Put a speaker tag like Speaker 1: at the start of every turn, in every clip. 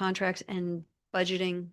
Speaker 1: contracts and budgeting.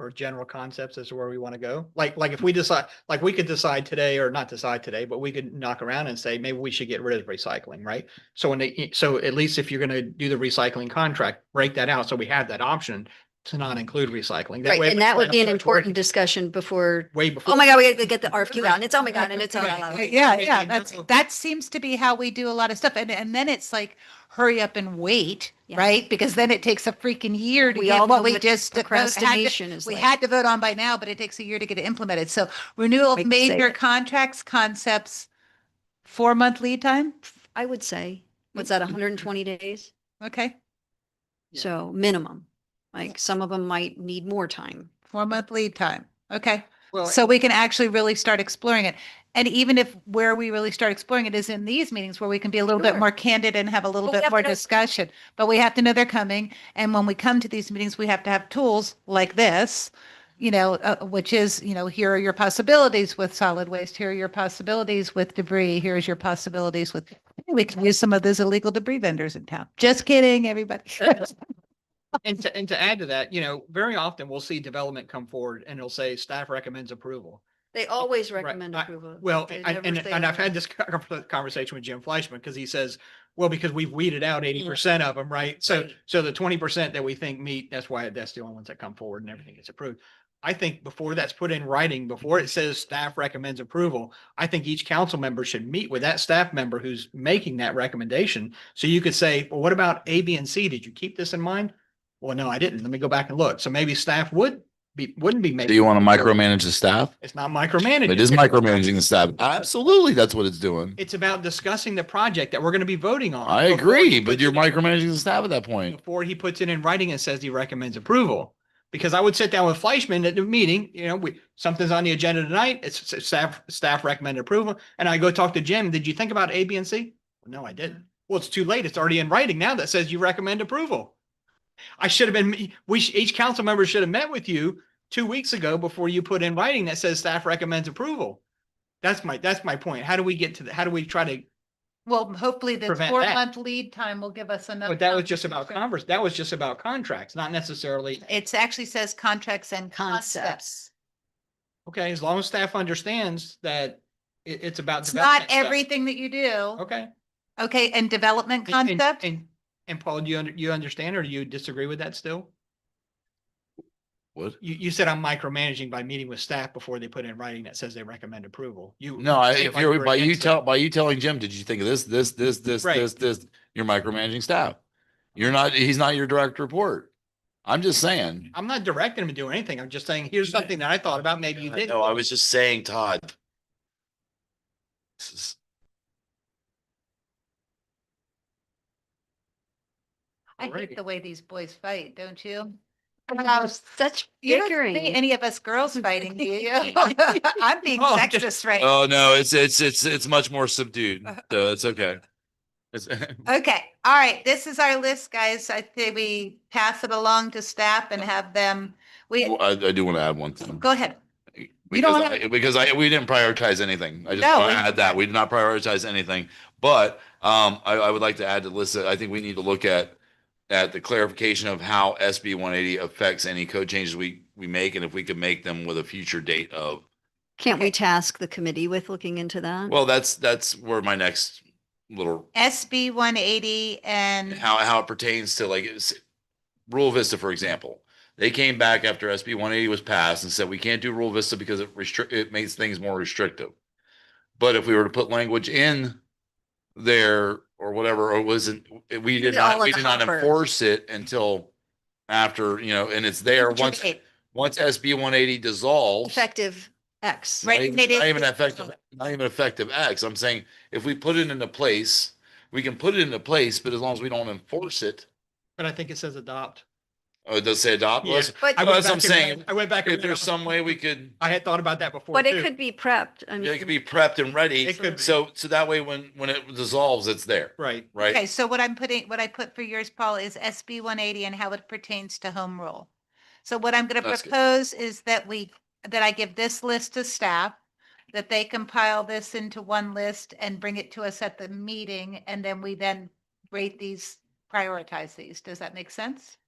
Speaker 2: or general concepts as to where we want to go? Like, like if we decide, like we could decide today or not decide today, but we could knock around and say, maybe we should get rid of recycling, right? So when they, e, so at least if you're gonna do the recycling contract, break that out. So we have that option to not include recycling.
Speaker 1: Right,
Speaker 2: way
Speaker 1: and
Speaker 2: we
Speaker 1: that
Speaker 2: plan
Speaker 1: would
Speaker 2: on
Speaker 1: be an
Speaker 2: what's
Speaker 1: important
Speaker 2: working
Speaker 1: discussion before,
Speaker 2: Way before.
Speaker 1: oh my God, we gotta get the RFQ out and it's, oh my God, and it's, oh my God.
Speaker 2: Right.
Speaker 3: Yeah,
Speaker 2: Maybe
Speaker 3: yeah,
Speaker 2: in
Speaker 3: that's,
Speaker 2: general.
Speaker 3: that seems to be how we do a lot of stuff. And, and then it's like, hurry up and wait,
Speaker 1: Yeah.
Speaker 3: right? Because then it takes a freaking year to
Speaker 1: We
Speaker 3: get
Speaker 1: all
Speaker 3: what
Speaker 1: know
Speaker 3: we
Speaker 1: that
Speaker 3: just. devo- had to-
Speaker 1: Procrastination is
Speaker 3: We
Speaker 1: like-
Speaker 3: had to vote on by now, but it takes a year to get it implemented. So renewal
Speaker 1: Like,
Speaker 3: of
Speaker 1: save
Speaker 3: major
Speaker 1: it.
Speaker 3: contracts, concepts, four month lead time.
Speaker 1: I would say, what's that, hundred and twenty days?
Speaker 3: Okay,
Speaker 2: Yeah.
Speaker 1: So minimum, like some of them might need more time.
Speaker 3: four month lead time. Okay.
Speaker 2: Well,
Speaker 3: So we can actually really start exploring it. And even if where we really start exploring it is in these meetings where we can be a little bit
Speaker 1: Sure.
Speaker 3: more candid and have a little
Speaker 1: But we
Speaker 3: bit
Speaker 1: have
Speaker 3: more
Speaker 1: to know-
Speaker 3: discussion, but we have to know they're coming. And when we come to these meetings, we have to have tools like this, you know, uh, which is, you know, here are your possibilities with solid waste. Here are your possibilities with debris. Here's your possibilities with, we can use some of those illegal debris vendors in town. Just kidding, everybody.
Speaker 2: And to, and to add to that, you know, very often we'll see development come forward and it'll say staff recommends approval.
Speaker 1: They always
Speaker 2: Right,
Speaker 1: recommend
Speaker 2: I-
Speaker 1: approval.
Speaker 2: Well,
Speaker 1: They
Speaker 2: I-
Speaker 1: never
Speaker 2: and,
Speaker 1: say
Speaker 2: and I've
Speaker 1: no.
Speaker 2: had this con- conversation with Jim Fleischman because he says, well, because we've weeded out eighty percent of them, right? So, so the twenty percent that we think meet, that's why that's the only ones that come forward and everything gets approved. I think before that's put in writing, before it says staff recommends approval, I think each council member should meet with that staff member who's making that recommendation. So you could say, well, what about A, B, and C? Did you keep this in mind? Well, no, I didn't. Let me go back and look. So maybe staff would be, wouldn't be
Speaker 4: Do
Speaker 2: making,
Speaker 4: you want to micromanage the staff?
Speaker 2: it's not micromanaging.
Speaker 4: It is micromanaging the staff. Absolutely, that's what it's doing.
Speaker 2: It's about discussing the project that we're gonna be voting on.
Speaker 4: I
Speaker 2: before he
Speaker 4: agree, but
Speaker 2: puts
Speaker 4: you're
Speaker 2: it in-
Speaker 4: micromanaging the staff at that point.
Speaker 2: Before he puts it in writing and says he recommends approval. Because I would sit down with Fleischman at the meeting, you know, we, something's on the agenda tonight, it's it's staff, staff recommended approval. And I go talk to Jim, did you think about A, B, and C? No, I didn't. Well, it's too late. It's already in writing now that says you recommend approval. I should have been, we, sh- each council member should have met with you two weeks ago before you put in writing that says staff recommends approval. That's my, that's my point. How do we get to, the? how do we try to
Speaker 3: Well, hopefully this
Speaker 2: Prevent
Speaker 3: four
Speaker 2: that.
Speaker 3: month lead time will give us enough.
Speaker 2: But that was
Speaker 3: time
Speaker 2: just
Speaker 3: to
Speaker 2: about
Speaker 3: discuss.
Speaker 2: converse, that was just about contracts, not necessarily,
Speaker 3: It actually says contracts and concepts.
Speaker 1: Concepts.
Speaker 2: okay, as long as staff understands that it, it's about.
Speaker 3: It's not
Speaker 2: development stuff.
Speaker 3: everything that you do.
Speaker 2: Okay.
Speaker 3: Okay, and development
Speaker 2: And- and-
Speaker 3: concept?
Speaker 2: And, and Paul, do you, under- you understand or do you disagree with that still?
Speaker 4: What?
Speaker 2: You, you said I'm micromanaging by meeting with staff before they put in writing that says they recommend approval. You.
Speaker 4: No, I-
Speaker 2: say it
Speaker 4: if
Speaker 2: like were
Speaker 4: you're, by you
Speaker 2: against it.
Speaker 4: tell, by you telling Jim, did you think of this, this, this, this,
Speaker 2: Right.
Speaker 4: this, this, you're micromanaging staff. You're not, he's not your direct report. I'm just saying.
Speaker 2: I'm not directing him to do anything. I'm just saying, here's something that I thought about, maybe you didn't.
Speaker 4: No, I was just saying, Todd. This is-
Speaker 3: I hate
Speaker 2: Alrighty.
Speaker 3: the way these boys fight, don't you?
Speaker 1: Wow, Such
Speaker 3: You don't see
Speaker 1: bickering.
Speaker 3: any of us girls fighting, do you? I'm being
Speaker 2: Oh,
Speaker 3: sexist right now.
Speaker 4: Oh, no, it's, it's, it's, it's much more subdued. So it's okay. It's-
Speaker 3: Okay, all right, this is our list, guys. I think we pass it along to staff and have them, we,
Speaker 4: Well, I, I do want to add one thing.
Speaker 3: go ahead.
Speaker 4: Because,
Speaker 3: don't
Speaker 4: I, because I we didn't prioritize anything. I just
Speaker 3: No,
Speaker 4: want
Speaker 3: we-
Speaker 4: to add that we did not prioritize anything. But um, I, I would like to add to Lissa. I think we need to look at at the clarification of how SB 180 affects any code changes we we make, and if we could make them with a future date of.
Speaker 1: Can't we task the committee with looking into that?
Speaker 4: Well, that's that's where my next little
Speaker 3: SB one eighty and
Speaker 4: how how it pertains to like it's- Rule Vista, for example. They came back after SB 180 was passed and said we can't do Rule Vista because it restrict it makes things more restrictive. But if we were to put language in there or whatever, or wasn't we
Speaker 1: Put
Speaker 4: did
Speaker 1: it all
Speaker 4: not
Speaker 1: in
Speaker 4: we
Speaker 1: the
Speaker 4: did not
Speaker 1: hopper.
Speaker 4: enforce it until after you know, and it's there once
Speaker 3: date,
Speaker 4: once SB 180 dissolves.
Speaker 1: Effective X.
Speaker 3: Right,
Speaker 4: Not even-
Speaker 3: it is-
Speaker 4: Not even
Speaker 3: it's
Speaker 4: effective, not even effective acts. I'm saying if we put it into place, we can put it into place, but as long as we don't enforce it,
Speaker 2: But I think it says adopt.
Speaker 4: oh, it does say adopt
Speaker 2: Yeah.
Speaker 4: list.
Speaker 1: But,
Speaker 2: I went
Speaker 4: that's what
Speaker 2: back
Speaker 4: I'm
Speaker 2: and
Speaker 4: saying.
Speaker 2: read- I went back. and
Speaker 4: If there's
Speaker 2: read-
Speaker 4: some way we could,
Speaker 2: I had thought about that before
Speaker 1: but it
Speaker 2: too.
Speaker 1: could be prepped. I
Speaker 4: it could
Speaker 1: mean,
Speaker 4: be prepped and ready.
Speaker 2: It could be.
Speaker 4: So, so that way when, when it dissolves, it's there,
Speaker 2: Right.
Speaker 3: Okay,
Speaker 4: right?
Speaker 3: so what I'm putting, what I put for yours, Paul, is SB one eighty and how it pertains to home rule. So what I'm gonna
Speaker 4: That's good.
Speaker 3: propose is that we, that I give this list to staff, that they compile this into one list and bring it to us at the meeting, and then we then rate these, prioritize these. Does that make sense?